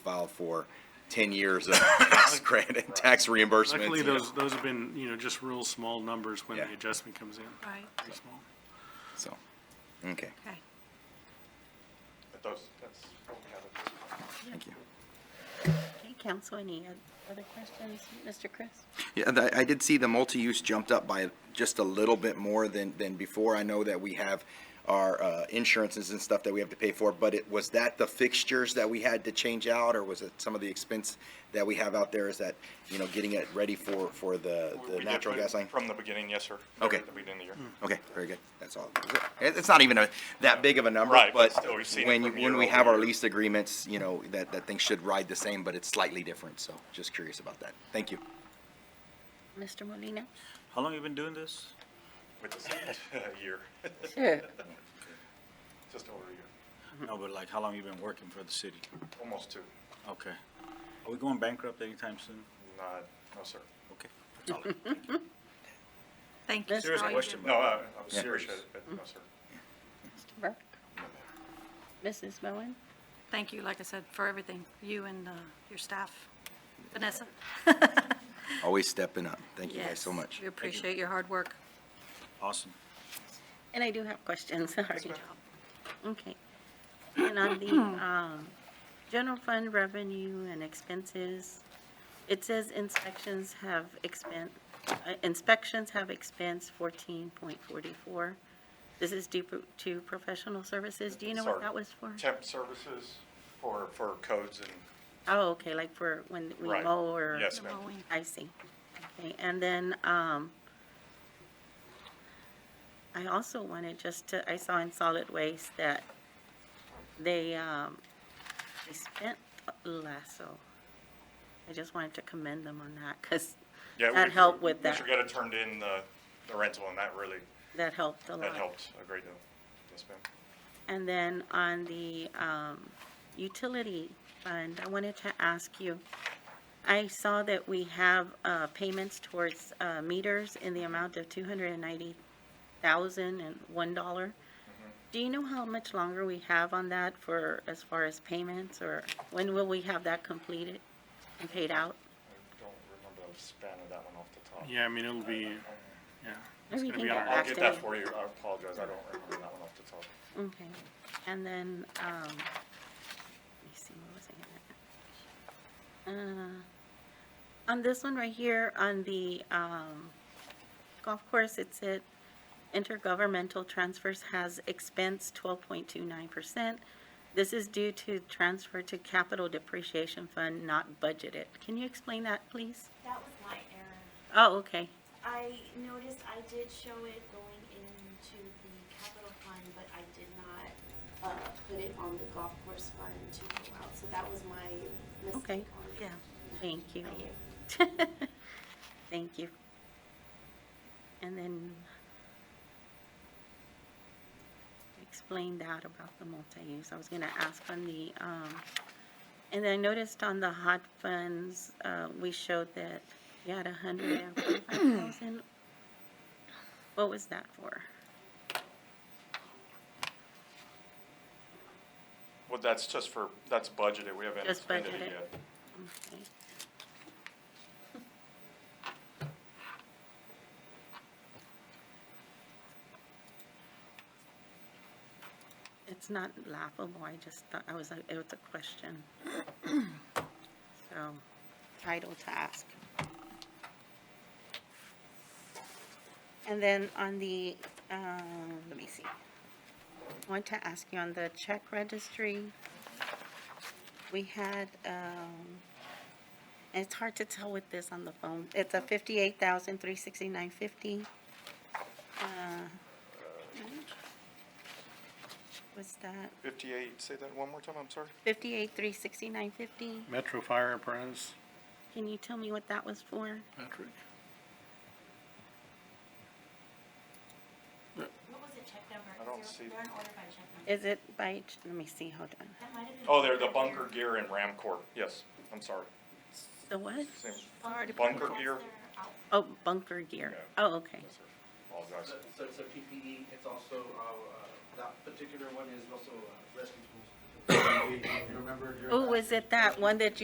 file for ten years of tax credit, tax reimbursements. Luckily, you know, those, those have been, you know, just real small numbers when the Yeah. adjustment comes in. Right, Very small. So, okay, okay. But those, that's what we have at this point. thank you. Okay, council, any other questions? Mr. Chris? Yeah, and I, I did see the multi-use jumped up by just a little bit more than, than before. I know that we have our, uh, insurances and stuff that we have to pay for, but it, was that the fixtures that we had to change out, or was it some of the expense that we have out there? Is that, you know, getting it ready for, for the, We- we the did natural put it gas line? From the beginning, yes, sir. Okay. At the beginning of the Hmm. Okay, year. very good. That's all. It- It's not even a, that big of a number, Right, but but still, we've seen it when, from you- year when we over have our year. lease agreements, you know, that, that thing should ride the same, but it's slightly different, so just curious about that. Thank you. Mr. Molina? How long you been doing this? With the second year, Sure. just over a year, No, but like, how long you been working for the city? almost two. Okay. Are we going bankrupt anytime soon? Not, no, sir. Okay. That's all I- thank you. Thank you. Serious for all you question, do. but No, I I Yeah. appreciate it, but no, sir. Mr. Burke? Mrs. Bowen? Thank you, like I said, for everything, you and uh, your staff. Vanessa? Always stepping up. Thank you guys Yes, so much. We appreciate your hard work. awesome. And I do have questions, sorry. Good job. Okay. And on the, um, general fund revenue and expenses, it says inspections have expense, inspections have expense fourteen point forty-four. This is due pro- to professional services. Do you know what Sorry. that was for? Temp services for, for codes and, Oh, okay, like for when we Right. mow or? Yes, The ma'am. mowing. I see. Okay, and then, um, I also wanted just to, I saw in solid waste that they, um, they spent lasso. I just wanted to commend them on that, cause yeah. that we- helped with that, Mr. Guetta turned in the, the rental and that really, that helped a lot. that helped a great deal. Yes, ma'am. And then on the um, utility fund, I wanted to ask you, I saw that we have uh, payments towards uh, meters in the amount of two hundred and ninety thousand and one dollar. Do you know how much longer we have on that for, as far as payments, or when will we have that completed and paid out? I don't remember the span of that one off the top. Yeah, I mean, it'll be, yeah. It's Maybe gonna we be can on get our- I'll back get to that you. for you. I apologize. I don't remember that one off the top. Okay, and then, um, let me see, what was I gonna? Uh, on this one right here, on the, um, golf course, it said intergovernmental transfers has expense twelve point two nine percent. This is due to transfer to capital depreciation fund not budgeted. Can you explain that, please? That was my error. Oh, okay, I noticed I did show it going into the capital fund, but I did not, uh, put it on the golf course fund to go out, so that was my Okay. mistake on it. Yeah. thank you. Thank you. Thank you. And then explain that about the multi-use. I was gonna ask on the, um, and I noticed on the hot funds, uh, we showed that we had a hundred and forty-five thousand. What was that for? Well, that's just for, that's budgeted. We haven't Just expended it budgeted. yet. Okay. It's not laughable, I just thought, I was like, it was a question. So, title to ask. And then on the, um, let me see. I Want to ask you on the check registry, we had, um, and it's hard to tell with this on the phone. It's a fifty-eight thousand, three sixty-nine fifty. Uh, What's that? 58, say that one more time, I'm sorry. Fifty-eight, three sixty-nine fifty? Metro Fire Apparatus, Can you tell me what that was for? Patrick. What was the check number? I don't see. They're in order by oh check number. Is it by, ch- let me see, hold on. That might have been. Oh, they're the bunker gear and Ramcorp. Yes, I'm sorry. The what? Same. Already bunker purchased gear. their Oh, out- bunker gear. Yeah. Oh, okay. Yes, sir. Apologize. So E, so it's a PPE, it's also, uh, uh, that particular one is also uh, rescue tools. You remember during Oh, that- is it that one that you?